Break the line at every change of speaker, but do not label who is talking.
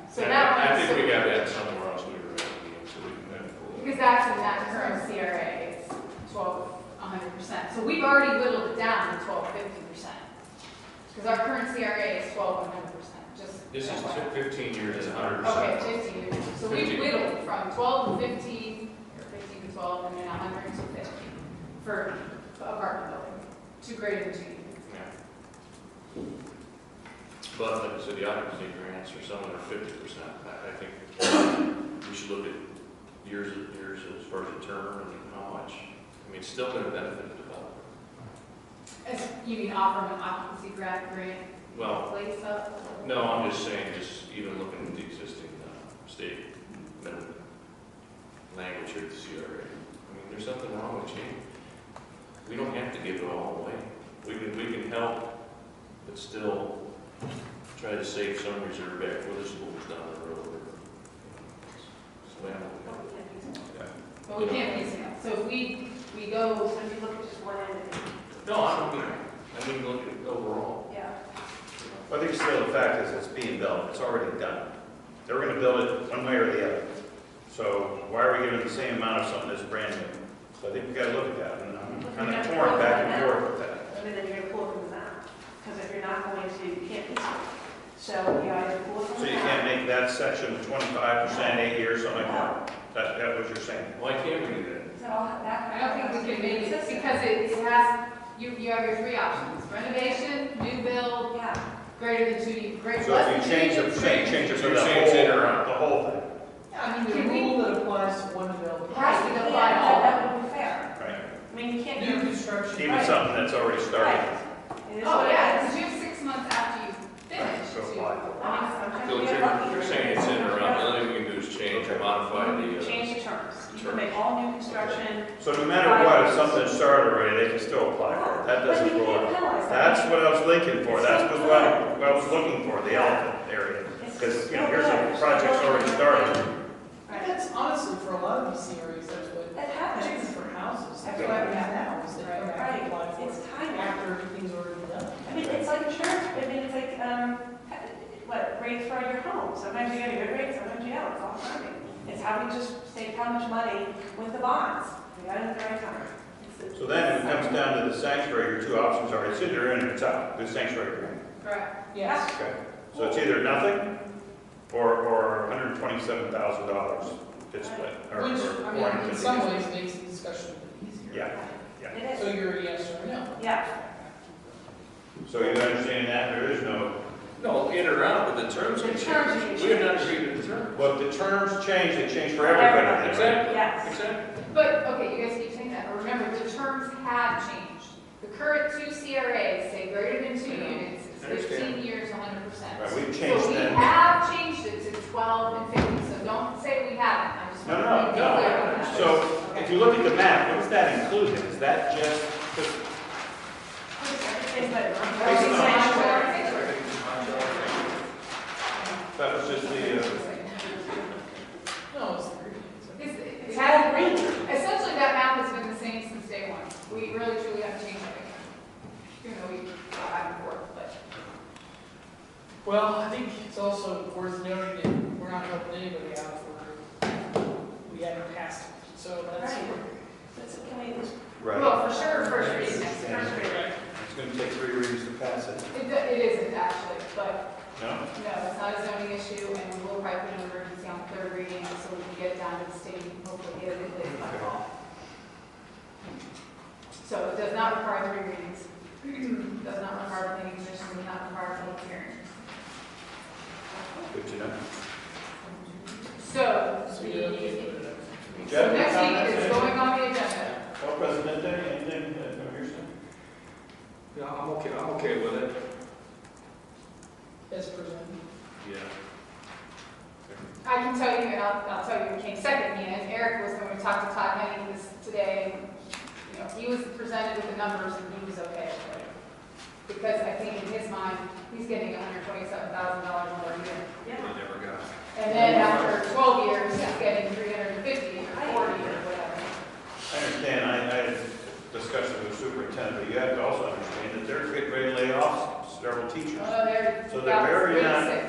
I
current.
think we got that somewhere else we were at, so we can then pull it.
Because that's in that current CRA, it's twelve, hundred percent. So we've already whittled it down to twelve, fifty percent. Because our current CRA is twelve, hundred percent, just.
This is
FYI.
took fifteen years, a hundred
Okay,
percent.
fifteen, so we
15.
whittled from twelve to fifteen, or fifteen to twelve, and then hundred to fifty for apartment building, two greater than two. units.
Yeah. But like I said, the occupancy grants are somewhere fifty percent. I, I think we should look at years, years as far as the term and how much. I mean, it's still gonna benefit the developer.
As, you mean offer them an occupancy grant, grant,
Well,
place up?
no, I'm just saying, just even looking at the existing uh, state minimum language here at the CRA. I mean, there's nothing wrong with change. We don't have to give it all away. We can, we can help, but still try to save some reserve back for the schools down the road. So, yeah.
But we can't piecemeal, so if we, we go,
So if you look at just one end of it,
No, I don't mean, I mean, look at overall.
yeah.
I think still the fact is it's being built, it's already done. They're gonna build it one way or the other. So why are we giving the same amount of something that's brand new? So I think we gotta look at that, and I'm kind of torn back and forth with that.
And then you're gonna pull it from the map, because if you're not going to, you can't fix it. So you either pull it from
So
the
you
map.
can't make that section twenty-five percent, eight years, something like that? That, that was your saying?
Why can't we do that?
So all that.
I don't think we can make it, because it it has, you, you have your three options, renovation, new build,
Yeah,
greater than two, units, greater.
So if you change it, change, change it for the
Change it
whole,
around.
the whole thing,
I mean, the
Can we-
rule that applies to one building.
Right, we
yeah,
don't buy
that
all.
that wouldn't be fair.
right?
I mean, you can't
New
do.
construction.
Even something that's already started.
Right. It is
Oh,
what it
yeah,
is.
because you have six months after you finish
So
to.
why?
Ah, sometimes
So
we
you're,
get lucky.
you're saying it's in or out, the only thing we can do is change or modify the, uh,
Change the terms. You can make all new construction.
So no matter what, if something's started already, they can still apply for it, that doesn't
But you
rule
can't
it.
penalize that.
That's what I was looking for, that's what I, what I was looking for, the elephant area. Because, you know, here's a project's already started.
Right.
That's honestly, for a lot of these series, that's what,
That happens.
particularly for houses, that's
Okay.
what happens now, is they come out
Right,
and apply for
it's
it
timing.
after everything's already done.
I mean, it's like insurance, I mean, it's like, um, what, rates for your home, sometimes you get a good rate, sometimes you don't, it's all timing. It's how we just save how much money with the bonds, we got it at the right time. It's-
So then it comes down to the sanctuary, your two options are, it's either in or it's out, the sanctuary grant.
Correct.
Yes,
Okay. So it's either nothing or, or hundred and twenty-seven thousand dollars to split. or- or
which, I mean, in
450.
some ways makes the discussion a bit easier.
Yeah,
It
So
is,
you're a yes or a no.
yeah,
so you understand that, there is no,
no, in or out, but the terms can
The terms can
change. We have not agreed to the term.
well, if the terms change, they change for everybody. then, right?
Exactly.
Yes.
Exactly.
But, okay, you guys keep saying that, but remember, the terms have changed. The current two CRAs say greater than two
I know.
units, it's
I understand.
fifteen years, hundred percent.
Right, we've changed
So we
that.
have changed it to twelve and fifty, so don't say we haven't, I just
No,
want to be
no,
clear
no,
on that.
So if you look at the map, what's that included? Is that just,
everything but.
Based on-
Sanctuary.
that was just the, uh,
No, it's agreed.
It's- It
It's
has
had
been,
green.
essentially, that map has been the same since day one. We really truly haven't changed it. Even though we go back and forth, but.
Well, I think it's also worth noting that we're not helping anybody out if we're, we haven't passed it, so that's.
Right. That's- Can we just?
right.
Well, for sure, first reading next year.
Yeah. It's gonna take three readings to pass it.
It, do- it isn't actually, but
No?
no, it's not a zoning issue and we will probably put an emergency on third reading so we can get it down to the state and hopefully get it in late by fall. So it does not require three readings. Does not require planning commission, does not require public hearing.
Good to know.
So,
So you don't need to
the,
put it up.
so next week is going on the agenda.
Well, Oh, President, anything uh, that you're saying?
Yeah, I'm okay, I'm okay with it.
As presented.
Yeah.
I can tell you, and I'll, I'll tell you who came second, Ian, Eric was the one who talked to Todd Henning this today, and, you know, he was presented with the numbers and he was okay with it. Because I think in his mind, he's getting hundred twenty-seven thousand dollars more a year.
Yeah.
never got.
And then after twelve years, he's getting three hundred and fifty or forty or whatever.
I understand, I, I had discussions with superintendent, but you have to also understand that they're getting ready to lay off several teachers.
Although they're.
So they're very,
about
uh,
six